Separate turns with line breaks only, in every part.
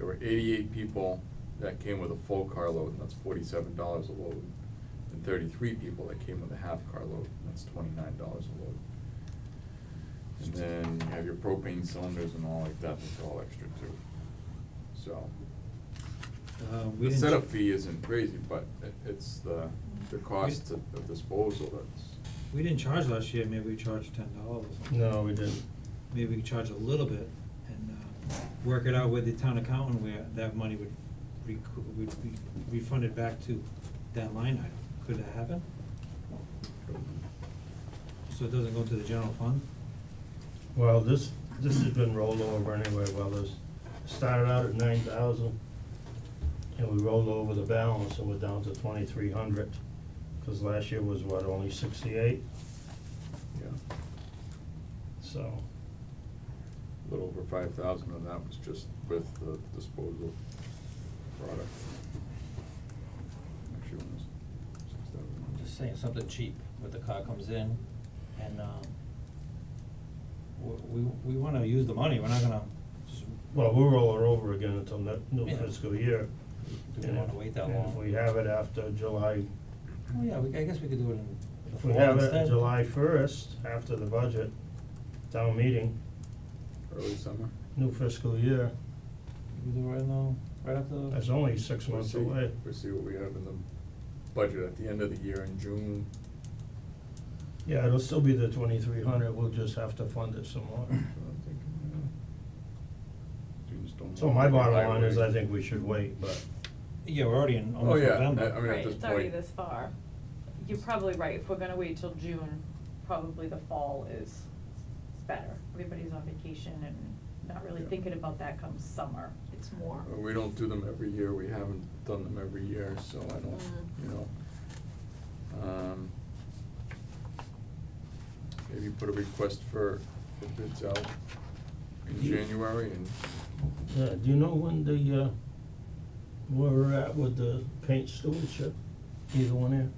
were eighty-eight people that came with a full carload, and that's forty-seven dollars a load. And thirty-three people that came with a half carload, and that's twenty-nine dollars a load. And then you have your propane cylinders and all like that, that's all extra too. So,
Uh, we
the
didn't-
setup fee isn't crazy, but it, it's the, the cost of of disposal that's.
We didn't charge last year, maybe we charged ten dollars or something.
No, we didn't.
Maybe we could charge a little bit and, uh, work it out with the town accountant where that money would recoup, would be refunded back to that line item. Could that happen? So it doesn't go to the general fund?
Well, this, this has been rolled over anyway, well, this started out at nine thousand, and we rolled over the balance, and we're down to twenty-three hundred, cause last year was what, only sixty-eight,
Yeah.
so,
A little over five thousand of that was just with the disposal product. Actually, almost six
I'm
thousand.
just saying, something cheap, where the car comes in and, um, w- we, we wanna use the money, we're not gonna just,
well, we'll roll it over again until ne- new
Yeah.
fiscal year.
do
and
we wanna
if-
wait that
and
long?
if we have it after July,
Oh, yeah, we, I guess we could do it in the
if we
fall
have it
instead.
July first, after the budget, town meeting,
Early summer?
new fiscal year,
We could do it right now, right after.
that's only six
We'll
months
see,
away.
we'll see what we have in the budget at the end of the year in June.
Yeah, it'll still be the twenty-three hundred, we'll just have to fund it some more.
So I'm thinking, uh, yeah. Students don't.
So
wanna
my
take a
bottom
high
line is
rate.
I think we should wait, but
Yeah, we're already in
Oh,
almost
yeah,
November.
I- I mean, at
Right,
this
it's already
point-
this far. You're probably right, if we're gonna wait till June, probably the fall is better. Everybody's on vacation and not really
Yeah.
thinking about that come summer, it's more.
Uh, We don't do them every year, we haven't done them every year, so I don't,
Mm.
you know. Um, Maybe put a request for, for bids out in
You-
January and,
uh do you know when the uh where we're at with the paint stewardship, either one here?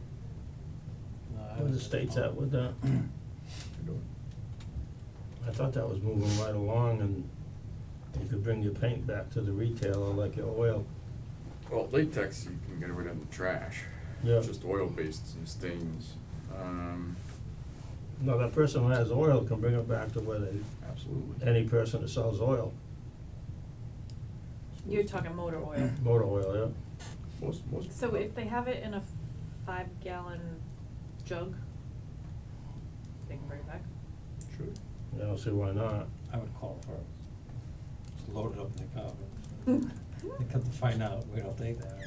No, I
Where the
was-
state's at with that?
you know,
I thought that was moving right along and you could bring your paint back to the retailer like your oil.
well, latex, you can get rid of in the trash.
Yeah.
Just oil-based and stains, um,
No, that person who has oil can bring it back to where they,
absolutely.
any person that sells oil,
You're talking motor oil.
Mm-hmm.
motor oil,
Most, most.
So if they have it in a five gallon jug, they can bring it back?
Sure.
yeah, I don't see why not.
I would call for, it. just load it up in the car, but they come to find out, we don't take that.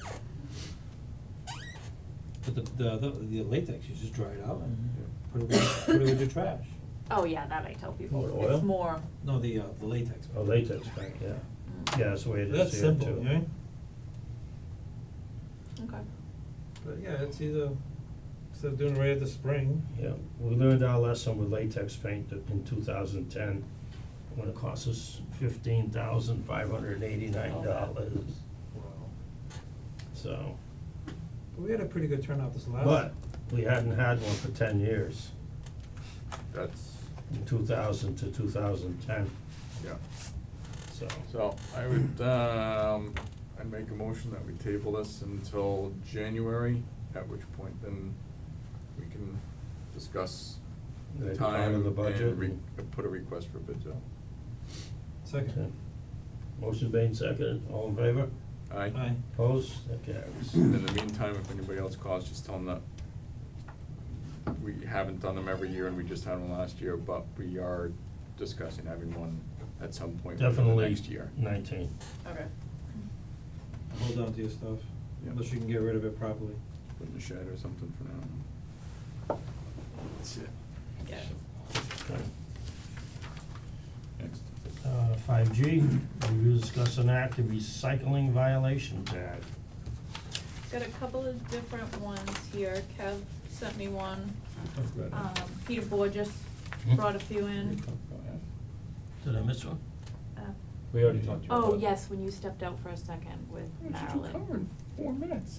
But the, the, the, the latex, you just dry it out and
Mm-hmm.
Yeah.
put it, with- put it with your trash.
Oh, yeah, that I tell people.
Motor oil?
It's more,
No, the, uh, the latex.
Oh, latex paint, yeah. Yeah, that's the way it is here too.
That's simple, yeah?
okay.
But yeah, it's either, instead of doing it right at the spring,
Yeah, we learned our lesson with latex paint that in two thousand ten, when it cost us fifteen thousand five hundred and eighty-nine dollars, so.
but we had a pretty good turnout this last.
But we hadn't had one for ten years,
That's,
from two thousand to two thousand ten,
yeah.
so.
So I would, um, I'd make a motion that we table this until January, at which point then we can discuss the
Like part of
time
the budget
and re-
and-
uh, put a request for bids out.
Okay.
Second.
Motion made second, all in favor?
Aye.
Aye.
Opposed? That carries.
And in the meantime, if anybody else calls, just tell them that we haven't done them every year and we just had one last year, but we are discussing having one at some point within the
Definitely
next year.
nineteen.
Okay.
Hold on to your stuff,
Yeah.
unless you can get rid of it properly.
Put in the shed or something for now. That's it.
Yeah.
Okay.
Next.
Uh, five G, review, discuss, and act the recycling violation tag.
Got a couple of different ones here. Kev sent me one.
Good.
Um, Peter Borges brought a few in.
Did I miss one?
Uh,
We already talked
Oh, yes, when you stepped out for a second with
What did you cover
Marilyn.
in four minutes?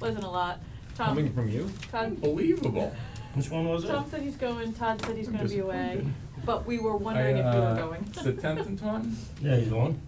Wasn't a lot. Tom.
Coming from you?
Todd-
Unbelievable.
Which one was it?
Tom said he's going, Todd said he's
I'm
gonna be away,
disappointed.
but we were wondering if you
I,
were
uh,
going.
It's the tenth and twelfth?
Yeah, he's on.